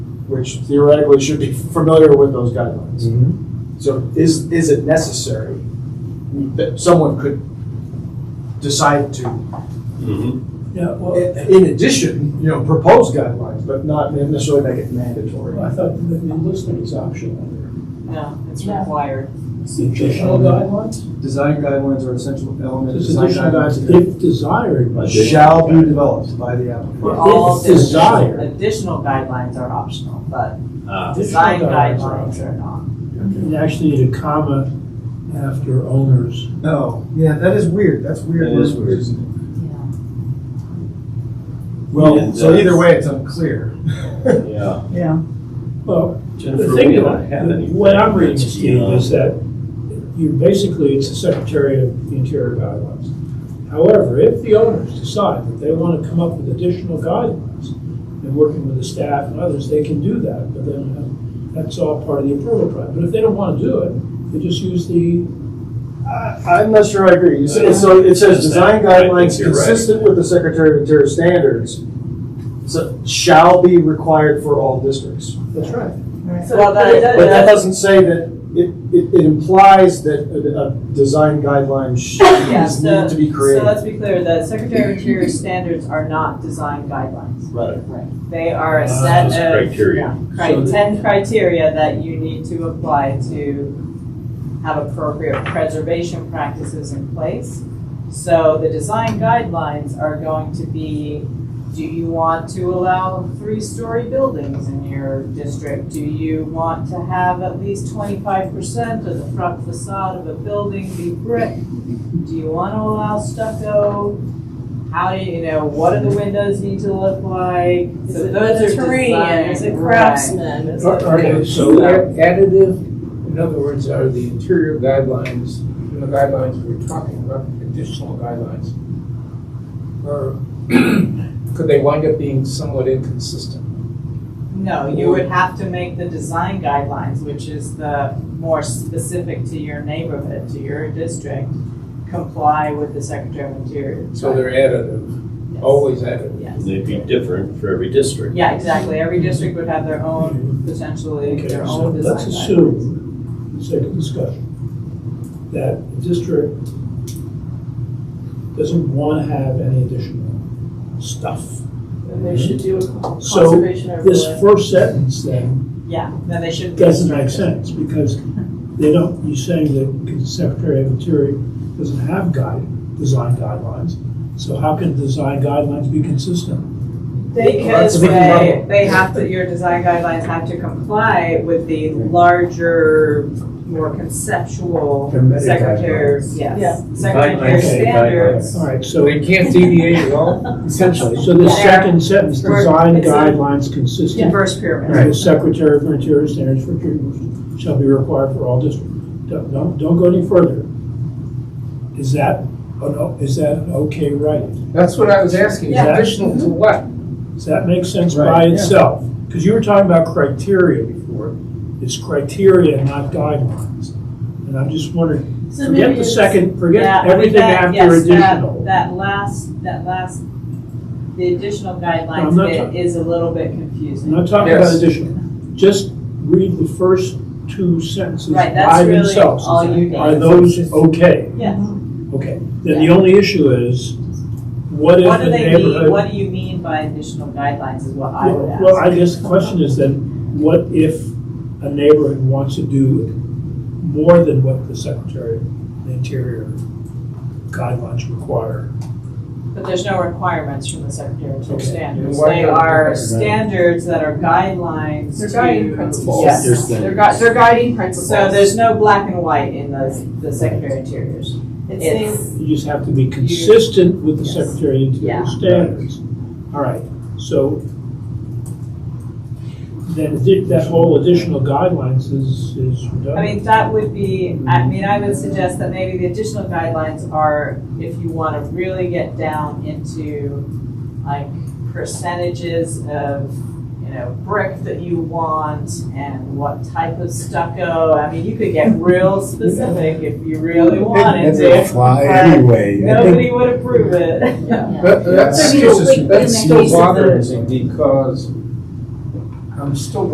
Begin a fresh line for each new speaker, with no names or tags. which theoretically should be familiar with those guidelines.
Mhm.
So is, is it necessary that someone could decide to,
Yeah, well,
in addition, you know, propose guidelines, but not necessarily make it mandatory?
I thought that the enlistment is optional.
No, it's
No.
required.
It's Additional guidelines?
Design guidelines are essential element. of
It's
design
additional guidelines,
guidelines.
if desired, but.
Shall be developed by the applicant.
For all
If desired.
additional- Additional guidelines are optional, but
Uh,
design
Additional guidelines are
guidelines are not.
You actually need a comma after owners.
No, yeah, that is weird, that's weird.
That is
language,
weird.
isn't it?
Yeah.
Well,
And,
so
uh,
either way, it's unclear.
Yeah.
Yeah.
Well,
Jennifer,
the
we
thing
don't have
that,
any.
what I'm reading,
that's,
Steve,
uh,
is that you basically, it's the Secretary of the Interior guidelines. However, if the owners decide that they want to come up with additional guidelines, and working with the staff and others, they can do that, but then uh, that's all part of the approval process. But if they don't want to do it, they just use the
I, I'm not sure I agree. You say, so it says, design
I think
guidelines
you're right.
consistent with the Secretary of Interior standards so- shall be required for all districts.
That's right.
Well, that,
But that
that,
doesn't say that, it, it, it implies that a, a design guideline should,
yeah,
is
so,
need to be
so
created.
let's be clear, the Secretary of Interior standards are not design guidelines.
Right. Ah,
They are a
Uh,
set
just
of.
criteria.
yeah,
So
Cri-
the-
ten criteria that you need to apply to have appropriate preservation practices in place. So the design guidelines are going to be, do you want to allow three-story buildings in your district? Do you want to have at least twenty-five percent of the front facade of a building be brick? Do you want to allow stucco? How do you, you know, what do the windows need to look like?
Is
So
it
those are
Mediterranean? Is it
design-
craftsman? Is
Are-
it-
Are they so a- additive? In other words, are the interior guidelines, you know, guidelines we're talking about, additional guidelines? Or could they wind up being somewhat inconsistent?
No, you would have to make the design guidelines, which is the more specific to your neighborhood, to your district, comply with the Secretary of Interior.
So they're additive,
Yes.
always additive.
Yes.
They'd be different for every district.
Yeah, exactly. Every district would have their own, potentially,
Okay,
their
so
own design
let's
guidelines.
assume, for the sake of discussion, that the district doesn't want to have any additional stuff.
And they should do a
So
conservation
This
overlay.
first sentence then
Yeah, then they should. be
doesn't make
restricted.
sense because they don't, you're saying that the Secretary of Interior doesn't have guide, design guidelines. So how can design guidelines be consistent?
They can,
Because
a big
they,
problem.
they have to, your design guidelines have to comply with the larger, more conceptual
The meta
Secretary,
Yeah.
yes, Secretary
Guidelines, okay,
standards.
All right,
So
so,
they can't deviate at all, essentially.
so the
Yeah.
second sentence,
Or
design
it's a-
guidelines consistent
Diverse pyramid.
And the Secretary of Interior standards for treatment shall be required for all districts. Don't, don't, don't go any further. Is that, an o- is that an okay writing?
That's what I was asking,
Yeah.
additional to what?
Does that make sense by
Right, yeah.
itself? Because you were talking about criteria before. It's criteria, not guidelines. And I'm just wondering,
so maybe
forget the
it's-
second,
Yeah, I
forget
mean,
everything
that-
after
yes, that-
additional.
That last, that last, the additional
I'm
guidelines
not
bit
talking-
is a little bit
I'm
confusing.
not talking about
Yes.
additional. Just read the first two sentences
Right, that's
by
really
themselves.
all you need.
Are those okay?
Yes.
Okay, then the only issue is, what if
What
the
do they mean,
neighborhood?
what do you mean by additional guidelines is what I would ask.
Well, I guess the question is then, what if a neighborhood wants to do more than what the Secretary of the Interior guidelines require?
But there's no requirements from the Secretary of State
Okay.
standards.
Why
They
not?
are standards that are guidelines
They're guiding
to.
principles.
Yes.
There's the-
They're gui- they're guiding principles.
So there's no black and white in the, the Secretary of Interior's.
It's things-
It's,
You just have to be consistent with the
Yes.
Secretary of the
Yeah.
Interior standards. All right, so then thi- that whole additional guidelines is, is redundant.
I mean, that would be, I mean, I would suggest that maybe the additional guidelines are if you want to really get down into like percentages of, you know, brick that you want and what type of stucco. I mean, you could get real specific if you really wanted to.
fly
but
I
Nobody would approve it.
That-
Yeah.
That's
So you don't
still,
link them
that's
in
still
cases that-
bothering me because I'm still